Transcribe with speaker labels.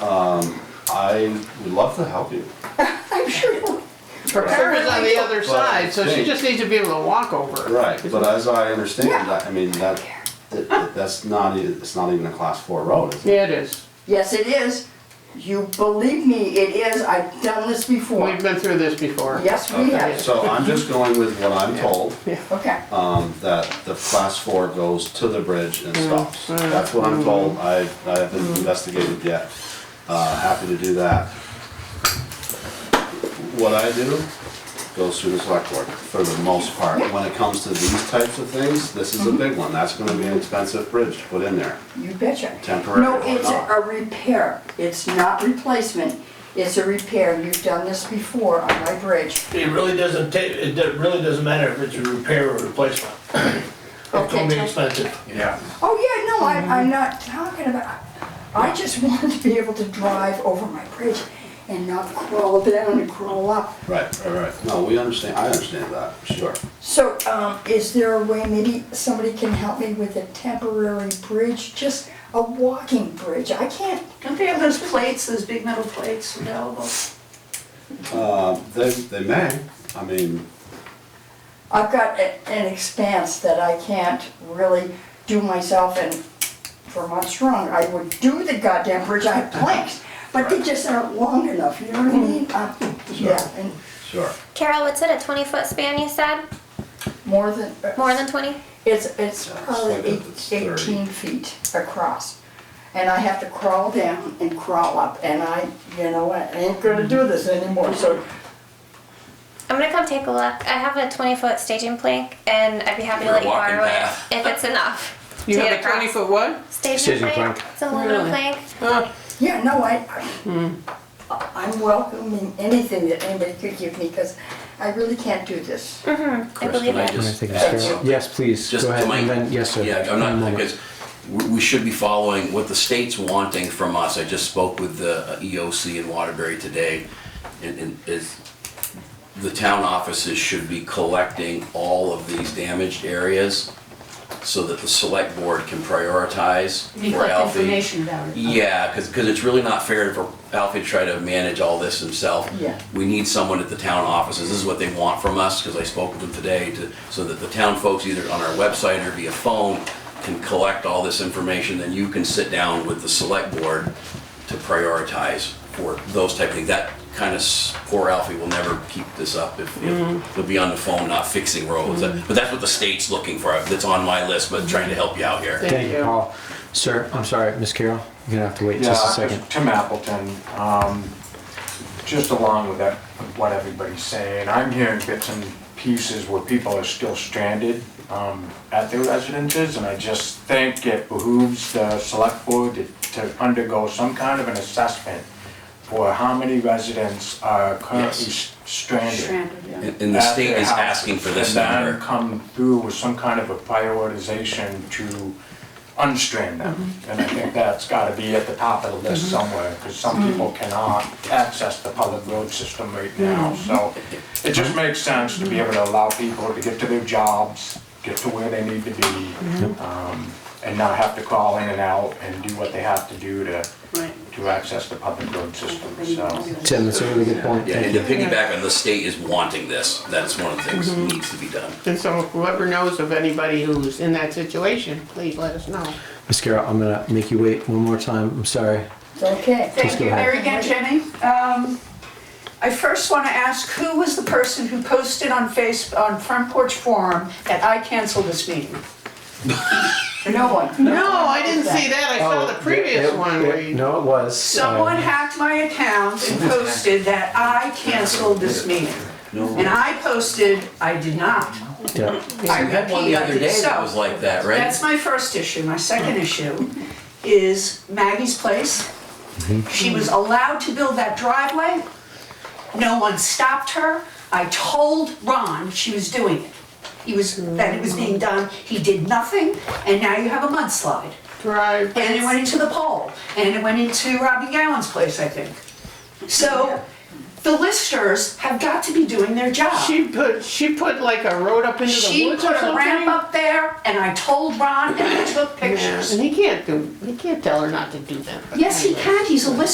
Speaker 1: Um, I would love to help you.
Speaker 2: I'm sure.
Speaker 3: Her parents on the other side, so she
Speaker 1: Right.
Speaker 3: just needs to be able to walk over.
Speaker 1: Right, but as I understand,
Speaker 2: Yeah.
Speaker 1: I mean, that, that- that's not, e- it's not even a class four road, is it?
Speaker 3: Yeah, it is.
Speaker 2: Yes, it is. You believe me, it is. I've done this before.
Speaker 3: We've been through this before.
Speaker 2: Yes, we
Speaker 1: Okay,
Speaker 2: have.
Speaker 1: so I'm just going with what I'm told,
Speaker 2: Okay.
Speaker 1: um, that the class four goes to the bridge and
Speaker 2: Mm-hmm.
Speaker 1: stops. That's what I'm told, I, I haven't investigated yet, uh, happy to do that. What I do goes through the select board, for the most part, when it comes to these types of things, this
Speaker 2: Mm-hmm.
Speaker 1: is a big one, that's gonna be an expensive bridge to put in there.
Speaker 2: You betcha.
Speaker 1: Temporary
Speaker 2: No,
Speaker 1: or
Speaker 2: it's
Speaker 1: not.
Speaker 2: a repair. It's not replacement. It's a repair. You've done this before on my bridge.
Speaker 4: It really doesn't ta, it do- really doesn't matter if it's a repair or replacement. It's gonna be
Speaker 2: Okay.
Speaker 4: expensive.
Speaker 1: Yeah.
Speaker 2: Oh, yeah, no,
Speaker 1: Mm-hmm.
Speaker 2: I, I'm not talking about, I just want to be able to drive over my bridge and not crawl down and crawl up.
Speaker 1: Right, right, right. No, we understand, I understand that, sure.
Speaker 2: So, um, is there a way maybe somebody can help me with a temporary bridge, just a walking bridge? I can't,
Speaker 5: Don't they have those plates, those big metal plates available?
Speaker 1: Uh, They, they may, I mean,
Speaker 2: I've got a- an expanse that I can't really do myself and Vermont's wrong, I would do the goddamn bridge, I have planks, but they just aren't long enough, you know what I mean? Uh, Yeah, and
Speaker 1: sure.
Speaker 6: Carol, what's it, a 20 foot span you said?
Speaker 2: more than. uh,
Speaker 6: More than 20?
Speaker 2: It's, it's
Speaker 1: Yeah, it's like
Speaker 2: probably
Speaker 1: a-
Speaker 2: eight-
Speaker 1: it's 30.
Speaker 2: eighteen feet across. And I have to crawl down and crawl up and I, you know, I ain't gonna do this anymore, so.
Speaker 6: I'm gonna come take a look. I have a 20 foot staging plank and I'd be happy to let you
Speaker 7: walking
Speaker 6: borrow it
Speaker 7: path.
Speaker 6: if it's enough.
Speaker 3: You
Speaker 6: to
Speaker 3: have
Speaker 6: get
Speaker 3: a twenty
Speaker 6: across.
Speaker 3: foot what?
Speaker 6: staging,
Speaker 8: Staging
Speaker 6: plank.
Speaker 8: plank.
Speaker 6: It's a aluminum
Speaker 3: Really?
Speaker 6: plank.
Speaker 3: Huh.
Speaker 2: Yeah, no, I,
Speaker 8: Hmm.
Speaker 2: I- I'm welcoming anything that anybody could give me, cause I really can't do this.
Speaker 6: I
Speaker 7: Chris,
Speaker 6: believe
Speaker 7: can I
Speaker 6: it.
Speaker 7: just
Speaker 8: Can I take a stab?
Speaker 7: add something?
Speaker 8: Yes, please,
Speaker 7: Just
Speaker 8: go ahead,
Speaker 7: to my-
Speaker 8: and then, yes, sir.
Speaker 7: Yeah,
Speaker 8: One
Speaker 7: I'm not,
Speaker 8: moment.
Speaker 7: because we we should be following what the state's wanting from us. I just spoke with the uh, EOC in Waterbury today, and, and is, the town offices should be collecting all of these damaged areas so that the select board can prioritize
Speaker 5: You
Speaker 7: for
Speaker 5: collect
Speaker 7: Alfie.
Speaker 5: information about it.
Speaker 7: Yeah, because, it's really not fair for Alfie to try to manage all this himself.
Speaker 2: Yeah.
Speaker 7: We need someone at the town offices, this is what they want from us, because I spoke with them today, to, so that the town folks, either on our website or via phone, can collect all this information, then you can sit down with the select board to prioritize for those type of things. That kind of, poor Alfie will never keep this up, if, if- he'll be on the phone not fixing roads. But that's what the state's looking for, that's on my list, but trying to help you out here.
Speaker 3: Thank
Speaker 8: Thank you,
Speaker 3: you.
Speaker 8: Paul. Sir, I'm sorry, Miss Carroll, you're gonna have to wait
Speaker 9: Yeah,
Speaker 8: just a
Speaker 9: I'm
Speaker 8: second.
Speaker 9: just- Tim Appleton, um, just along with that, what everybody's saying, I'm hearing bits and pieces where people are still stranded, um, at their residences, and I just think it behooves the select board to, to undergo some kind of an assessment for how many residents are currently s- stranded.
Speaker 5: Stranded, yeah.
Speaker 7: And and the
Speaker 9: at
Speaker 7: state
Speaker 9: their
Speaker 7: is
Speaker 9: house,
Speaker 7: asking for this
Speaker 9: And
Speaker 7: number.
Speaker 9: then come through with some kind of a prioritization to unstrand them. And I think that's gotta be at the top of the list somewhere, because some people cannot access the public road system right now. So it just makes sense to be able to allow people to get to their jobs, get to where they need to be, um, and not have to crawl in and out and do what they have to do to,
Speaker 5: Right.
Speaker 9: to access the public road system, so.
Speaker 8: Tim, that's a really good point,
Speaker 7: Yeah,
Speaker 8: thank
Speaker 7: and to
Speaker 8: you. Mm-hmm.
Speaker 7: piggyback on, the state is wanting this. That's one of the things that needs to be done.
Speaker 3: And so whoever knows of anybody who's in that situation, please let us know.
Speaker 8: Miss Carroll, I'm gonna make you wait one more time, I'm sorry.
Speaker 2: It's okay.
Speaker 8: Just
Speaker 5: Thank
Speaker 8: go
Speaker 5: you,
Speaker 8: ahead.
Speaker 5: there again, Jenny. Um, I first want to ask, who was the person who posted on Face, on Front Porch Forum that I cancel this meeting?
Speaker 2: No one.
Speaker 3: No, I didn't see that. I saw the previous
Speaker 8: It-
Speaker 3: one
Speaker 8: it-
Speaker 3: where you.
Speaker 8: Oh, No, it was. uh,
Speaker 5: Someone hacked my account and posted that I canceled this meeting. And I posted, I did not.
Speaker 8: yeah.
Speaker 7: I had one the other day that
Speaker 5: So-
Speaker 7: was like that, right?
Speaker 5: That's my first issue. My second issue is Maggie's place. She was allowed to build that driveway. No one stopped her. I told Ron she was doing it. He was, that it was being done. He did nothing, and now you have a mudslide.
Speaker 3: Drive.
Speaker 5: And it went into the pole, and it went into Robbie Gowan's place, I think. So the listers have got to be doing their job.
Speaker 3: She put, she put like a road up into the
Speaker 5: She
Speaker 3: woods
Speaker 5: put
Speaker 3: or
Speaker 5: a ramp
Speaker 3: something.
Speaker 5: up there, and I told Ron, and I took
Speaker 3: Yeah,
Speaker 5: pictures.
Speaker 3: And he can't do, he can't tell her not to do that. but
Speaker 5: Yes, he
Speaker 3: anyway.
Speaker 5: can, he's a listener.